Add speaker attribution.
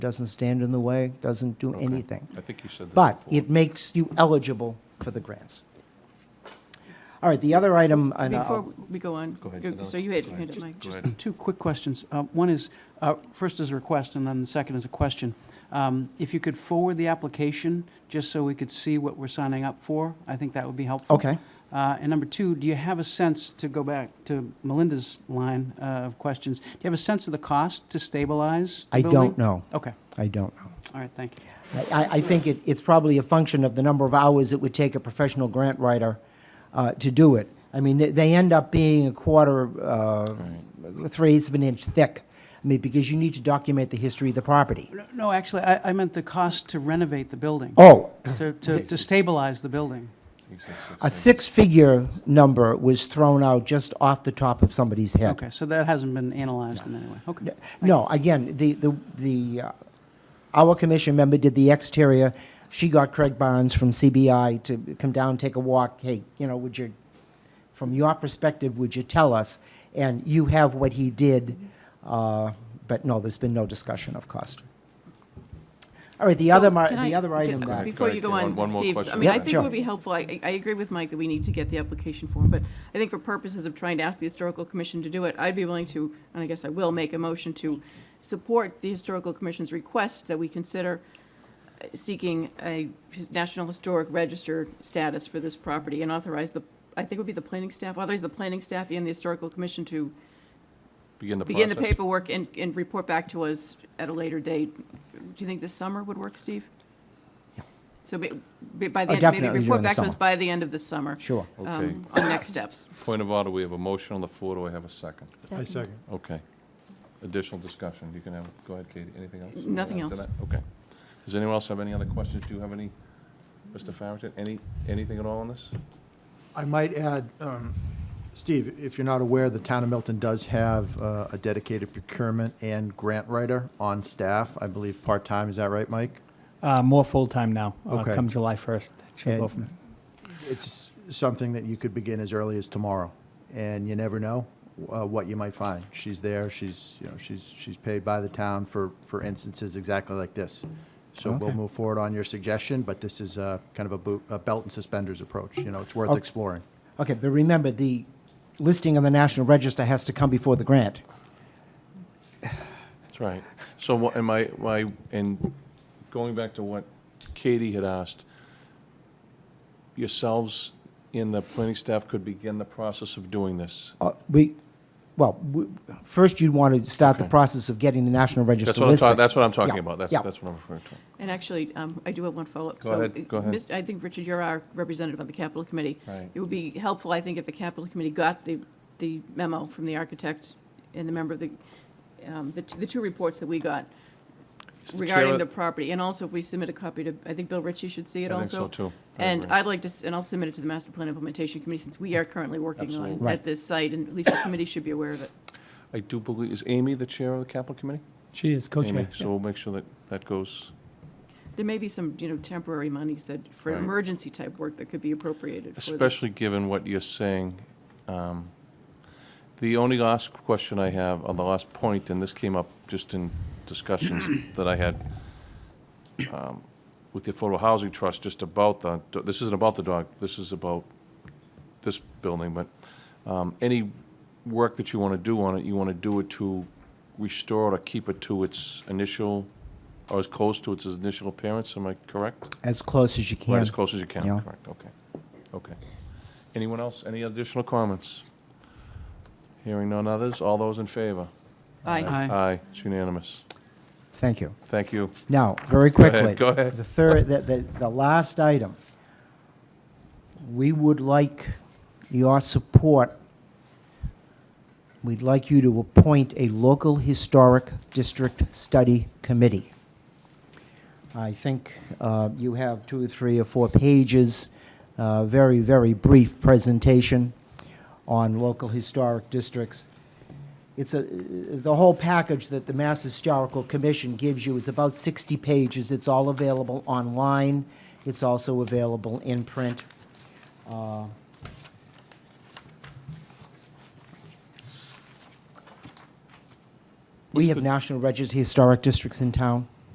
Speaker 1: doesn't stand in the way, doesn't do
Speaker 2: Okay.
Speaker 1: anything.
Speaker 2: I think you said that
Speaker 1: But
Speaker 2: before.
Speaker 1: it makes you eligible for the grants. All right, the other item, and I'll-
Speaker 3: Before we go on,
Speaker 2: Go ahead,
Speaker 3: you-
Speaker 2: Adele.
Speaker 3: so you had,
Speaker 2: Go
Speaker 3: you
Speaker 2: ahead.
Speaker 3: had it, Mike.
Speaker 2: Go
Speaker 3: Just-
Speaker 2: ahead.
Speaker 4: Two quick questions. Uh, One is, uh, first is a request, and then the second is a question. Um, If you could forward the application, just so we could see what we're signing up for, I think that would be helpful.
Speaker 1: okay.
Speaker 4: Uh, And number two, do you have a sense, to go back to Melinda's line uh, of questions, do you have a sense of the cost to stabilize the
Speaker 1: I
Speaker 4: building?
Speaker 1: don't know.
Speaker 4: Okay,
Speaker 1: I don't know.
Speaker 4: all right, thank you.
Speaker 1: I- I, I think it, it's probably a function of the number of hours it would take a professional grant writer uh, to do it. I mean, they- they end up being a quarter, uh, three eighths of an inch thick. I mean, because you need to document the history of the property.
Speaker 4: No- No, actually, I I meant the cost to renovate the building,
Speaker 1: Oh,
Speaker 4: to- to to stabilize the building.
Speaker 2: He said
Speaker 1: a
Speaker 2: six.
Speaker 1: six-figure number was thrown out just off the top of somebody's head.
Speaker 4: Okay, so that hasn't been analyzed in any way, okay.
Speaker 1: No, again, the, the, the, uh, our commission member did the exterior. She got Craig Barnes from CBI to come down, take a walk. Hey, you know, would you, from your perspective, would you tell us? And you have what he did, uh, but no, there's been no discussion of cost. All right, the
Speaker 3: So
Speaker 1: other, mar-
Speaker 3: can
Speaker 1: the
Speaker 3: I-
Speaker 1: other
Speaker 3: can-
Speaker 1: item
Speaker 2: Go ahead,
Speaker 1: that,
Speaker 3: Before
Speaker 2: go
Speaker 3: you
Speaker 2: ahead,
Speaker 3: go
Speaker 2: Caroline.
Speaker 3: on,
Speaker 2: One more
Speaker 3: Steve, I
Speaker 2: question.
Speaker 3: mean, I
Speaker 1: Yeah,
Speaker 3: think it
Speaker 1: sure.
Speaker 3: would be helpful, I, I agree with Mike that we need to get the application form, but I think for purposes of trying to ask the Historical Commission to do it, I'd be willing to, and I guess I will, make a motion to support the Historical Commission's request that we consider uh, seeking a his- National Historic Register status for this property and authorize the, I think it would be the planning staff, authorize the planning staff and the Historical Commission to
Speaker 2: Begin the
Speaker 3: begin the
Speaker 2: process.
Speaker 3: paperwork and, and report back to us at a later date. Do you think this summer would work, Steve? So be- be- by the
Speaker 1: Oh,
Speaker 3: end, maybe
Speaker 1: definitely
Speaker 3: report
Speaker 1: during the
Speaker 3: back to us
Speaker 1: summer.
Speaker 3: by the end of the summer.
Speaker 1: sure.
Speaker 3: um,
Speaker 2: Okay.
Speaker 3: On next steps.
Speaker 2: Point of order, we have a motion on the floor. Do I have a second?
Speaker 5: I second.
Speaker 2: Okay. Additional discussion. You can have, go ahead, Katie. Anything else?
Speaker 3: Nothing
Speaker 2: After
Speaker 3: else.
Speaker 2: that? Okay. Does anyone else have any other questions? Do you have any, Mr. Farrington? Any, anything at all on this?
Speaker 5: I might add, um, Steve, if you're not aware, the town of Milton does have uh, a dedicated procurement and grant writer on staff, I believe, part-time, is that right, Mike?
Speaker 6: Uh, more full-time now, uh,
Speaker 5: Okay.
Speaker 6: come July 1st. she'll go
Speaker 5: And-
Speaker 6: from-
Speaker 5: It's something that you could begin as early as tomorrow, and you never know uh, what you might find. She's there, she's, you know, she's, she's paid by the town for, for instances exactly like this. So we'll
Speaker 1: Okay.
Speaker 5: move forward on your suggestion, but this is uh, kind of a boot- a belt and suspenders approach, you know, it's worth
Speaker 1: Okay.
Speaker 5: exploring.
Speaker 1: Okay, but remember, the listing on the National Register has to come before the grant.
Speaker 2: That's right. So what, am I, my, and going back to what Katie had asked, yourselves in the planning staff could begin the process of doing this.
Speaker 1: Uh, We, well, we- first you'd want to start the
Speaker 2: Okay.
Speaker 1: process of getting the National Register
Speaker 2: That's what I'm
Speaker 1: listed.
Speaker 2: talking, that's what I'm talking
Speaker 1: Yeah,
Speaker 2: about.
Speaker 1: yeah.
Speaker 2: That's, that's what I'm referring to.
Speaker 3: And actually, um, I do have one follow-up.
Speaker 2: Go
Speaker 3: So,
Speaker 2: ahead, go ahead.
Speaker 3: Mr. I think, Richard, you're our representative on the Capitol Committee.
Speaker 2: Right.
Speaker 3: It would be helpful, I think, if the Capitol Committee got the, the memo from the architect and the member of the, um, the t- the two reports that we got
Speaker 2: Is the chair
Speaker 3: regarding
Speaker 2: of-
Speaker 3: the property, and also if we submit a copy to, I think Bill Ritchie should see it
Speaker 2: I think so,
Speaker 3: also.
Speaker 2: too. I
Speaker 3: And
Speaker 2: agree.
Speaker 3: I'd like to, s- and I'll submit it to the Master Plan Implementation Committee, since we are currently working on it
Speaker 2: Absolutely.
Speaker 3: at this site, and at least the committee should be aware of it.
Speaker 2: I do believe, is Amy the chair of the capital committee?
Speaker 6: She is
Speaker 2: Amy,
Speaker 6: co-chair.
Speaker 2: so we'll make sure that that goes,
Speaker 3: There may be some, you know, temporary monies that, for
Speaker 2: Right.
Speaker 3: emergency-type work that could be appropriated for this.
Speaker 2: especially given what you're saying. Um, The only last question I have on the last point, and this came up just in discussions that I had um, with the Affordable Housing Trust, just about the, this isn't about the dog, this is about this building, but um, any work that you want to do on it, you want to do it to restore it or keep it to its initial, or as close to its initial appearance, am I correct?
Speaker 1: As close as you can.
Speaker 2: Right as close as you can,
Speaker 1: Yeah.
Speaker 2: correct, okay, okay. Anyone else, any additional comments? Hearing none others, all those in favor?
Speaker 3: Aye.
Speaker 4: Aye.
Speaker 2: Aye, it's unanimous.
Speaker 1: Thank you.
Speaker 2: Thank you.
Speaker 1: Now, very
Speaker 2: ahead,
Speaker 1: quickly.
Speaker 2: go ahead.
Speaker 1: The third, the, the, the last item. We would like your support. We'd like you to appoint a local historic district study committee. I think uh, you have two or three or four pages, uh, very, very brief presentation on local historic districts. It's a, the whole package that the Mass Historical Commission gives you is about 60 pages. It's all available online. It's also available in print. Uh, We
Speaker 2: What's
Speaker 1: have
Speaker 2: the-
Speaker 1: National Register historic districts in town.